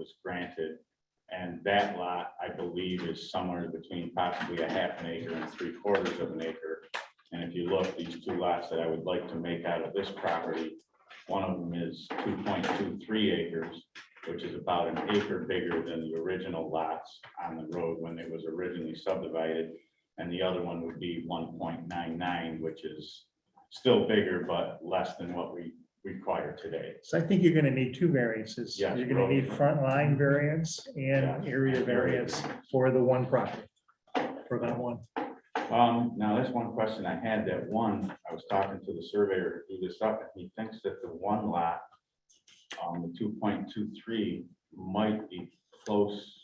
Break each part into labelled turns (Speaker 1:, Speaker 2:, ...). Speaker 1: was granted. And that lot, I believe, is somewhere between possibly a half an acre and three quarters of an acre. And if you look, these two lots that I would like to make out of this property, one of them is two point two three acres, which is about an acre bigger than the original lots on the road when it was originally subdivided. And the other one would be one point nine nine, which is still bigger, but less than what we require today.
Speaker 2: So I think you're gonna need two variances.
Speaker 1: Yeah.
Speaker 2: You're gonna need front line variance
Speaker 1: Yeah.
Speaker 2: and area variance for the one property. For that one.
Speaker 1: Um, now, that's one question I had, that one, I was talking to the surveyor who do this up, and he thinks that the one lot, um, the two point two three might be close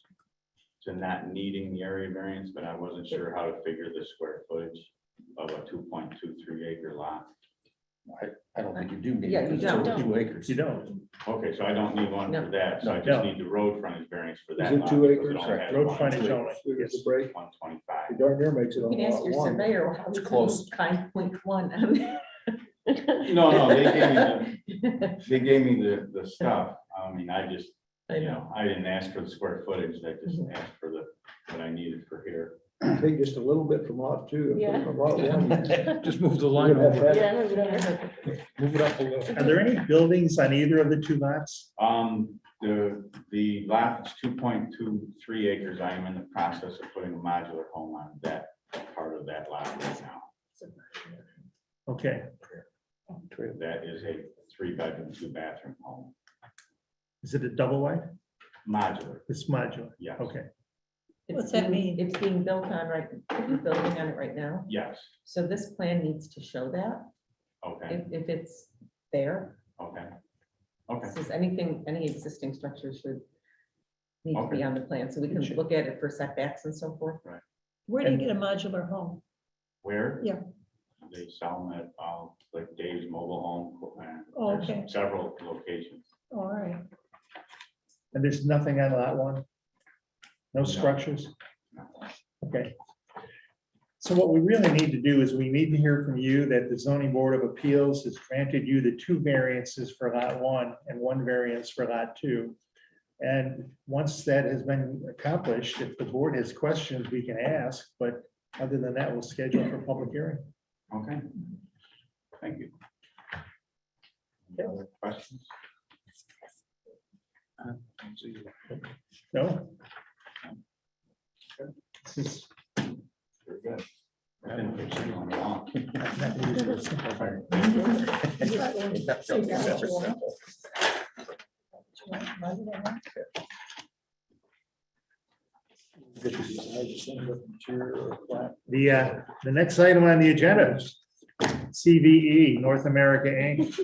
Speaker 1: to not needing the area variance, but I wasn't sure how to figure the square footage of a two point two three acre lot.
Speaker 3: I don't think you do need.
Speaker 4: Yeah,
Speaker 3: it,
Speaker 4: you
Speaker 3: 'cause it's over
Speaker 4: don't.
Speaker 3: Two acres.
Speaker 2: You don't.
Speaker 1: Okay, so I don't need one for that, so I just
Speaker 2: No.
Speaker 1: need the road frontage variance for that
Speaker 5: Is it
Speaker 1: lot.
Speaker 5: two
Speaker 1: because it
Speaker 5: acres?
Speaker 1: only
Speaker 3: Correct.
Speaker 1: has
Speaker 2: Road
Speaker 1: one-
Speaker 2: frontage only.
Speaker 5: There's
Speaker 2: Yes.
Speaker 5: a break.
Speaker 1: One twenty-five.
Speaker 5: It darn near makes it on
Speaker 4: You can ask
Speaker 5: lot
Speaker 4: your
Speaker 5: one.
Speaker 4: surveyor, how
Speaker 3: It's
Speaker 4: we
Speaker 3: close.
Speaker 4: kind point one. No,
Speaker 1: No, no, they gave me They gave me the, the stuff, I mean, I just
Speaker 4: I
Speaker 1: You
Speaker 4: know,
Speaker 1: know, I didn't ask for the square footage, I just
Speaker 6: Mm-hmm.
Speaker 1: asked for the, what I needed for here.
Speaker 5: Take just a little bit from lot two. and put it on lot one.
Speaker 3: Just move the
Speaker 5: You're
Speaker 3: line
Speaker 5: gonna have
Speaker 3: over,
Speaker 5: that-
Speaker 3: move it up a little.
Speaker 2: Are there any buildings on either of the two lots?
Speaker 1: Um, the, the lot is two point two three acres, I am in the process of putting a modular home on that part of that lot right now.
Speaker 2: Okay,
Speaker 1: That is a three bedroom, two bathroom home,
Speaker 2: is it a double wide?
Speaker 1: modular,
Speaker 2: It's modular.
Speaker 1: yes,
Speaker 2: Okay,
Speaker 4: What's that mean? It's being built on right, we're building on it right now.
Speaker 1: yes,
Speaker 4: So this plan needs to show that
Speaker 1: okay,
Speaker 4: if, if it's there.
Speaker 1: okay, okay,
Speaker 4: Since anything, any existing structure should need to
Speaker 1: Okay.
Speaker 4: be on the plan, so we can look at it for setbacks and so forth.
Speaker 6: Where do you get a modular home?
Speaker 1: where?
Speaker 6: Yeah.
Speaker 1: They sell them at, uh, like Dave's Mobile Home, and
Speaker 6: Oh,
Speaker 1: there's
Speaker 6: okay.
Speaker 1: several locations.
Speaker 6: Oh, All right,
Speaker 2: and there's nothing on lot one? No structures? Okay. So what we really need to do is we need to hear from you that the zoning board of appeals has granted you the two variances for lot one and one variance for lot two. And once that has been accomplished, if the board has questions, we can ask, but other than that, we'll schedule for public hearing.
Speaker 1: Okay. Thank you. Any other Questions?
Speaker 2: No? This is-
Speaker 1: Very good. I've been fixing on and off.
Speaker 2: I'm not gonna use this. The, uh, the next item on the agenda, CVE, North America Inc.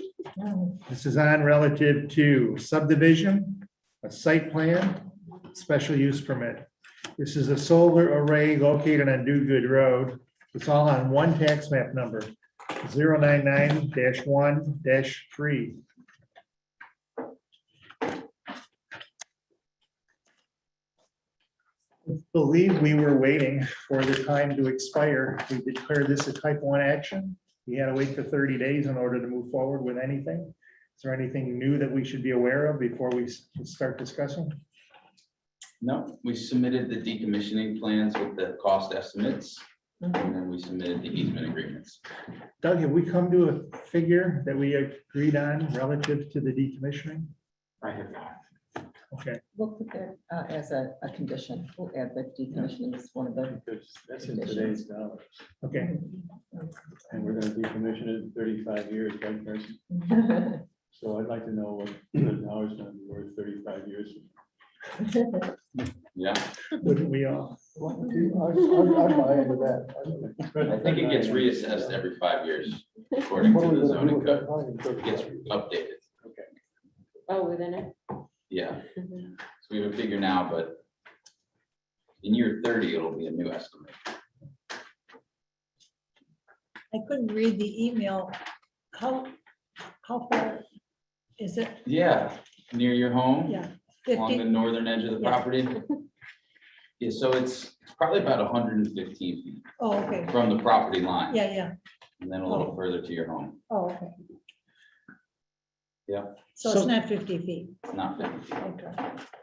Speaker 2: This is on relative to subdivision, a site plan, special use permit. This is a solar array located on Do Good Road. It's all on one tax map number, 099 one three. Believe we were waiting for the time to expire. We declared this a type one action. We had to wait for thirty days in order to move forward with anything. Is there anything new that we should be aware of before we s- start discussing?
Speaker 7: No, we submitted the decommissioning plans with the cost estimates, and then we submitted the easement agreements.
Speaker 2: Doug, have we come to a figure that we agreed on relative to the decommissioning?
Speaker 1: I have not.
Speaker 2: Okay,
Speaker 4: We'll put that uh, as a, a condition. We'll add the decommissioning is one of the.
Speaker 8: That's in today's dollars,
Speaker 2: okay.
Speaker 8: and we're gonna decommission it in thirty-five years, right, Kirsten? So I'd like to know what the dollars gonna be worth thirty-five years.
Speaker 7: Yeah,
Speaker 2: Wouldn't we all?
Speaker 5: I'd- I'd buy into that. I'd-
Speaker 7: I think it gets reassessed every five years according
Speaker 5: What are
Speaker 7: to
Speaker 5: we
Speaker 7: the
Speaker 5: gonna do
Speaker 7: zoning
Speaker 5: with that
Speaker 7: code.
Speaker 5: money in
Speaker 7: It Gets
Speaker 5: 35 years?
Speaker 7: updated,
Speaker 9: Oh, within it? Mm-hmm.
Speaker 7: yeah. So we have a figure now, but in year thirty, it'll be a new estimate.
Speaker 6: I couldn't read the email. How, how far is it?
Speaker 7: Yeah, near your home.
Speaker 6: Yeah.
Speaker 7: along the
Speaker 6: Fifty,
Speaker 7: northern edge of the
Speaker 6: Yeah.
Speaker 7: property. Yeah, so it's it's probably about hundred and fifteen feet
Speaker 6: oh, okay,
Speaker 7: from the property line,
Speaker 6: yeah, yeah,
Speaker 7: and then a little further to your home,
Speaker 6: oh, okay.
Speaker 7: Yeah.
Speaker 6: So
Speaker 2: So-
Speaker 6: it's not fifty feet,
Speaker 7: It's not fifty.
Speaker 6: okay.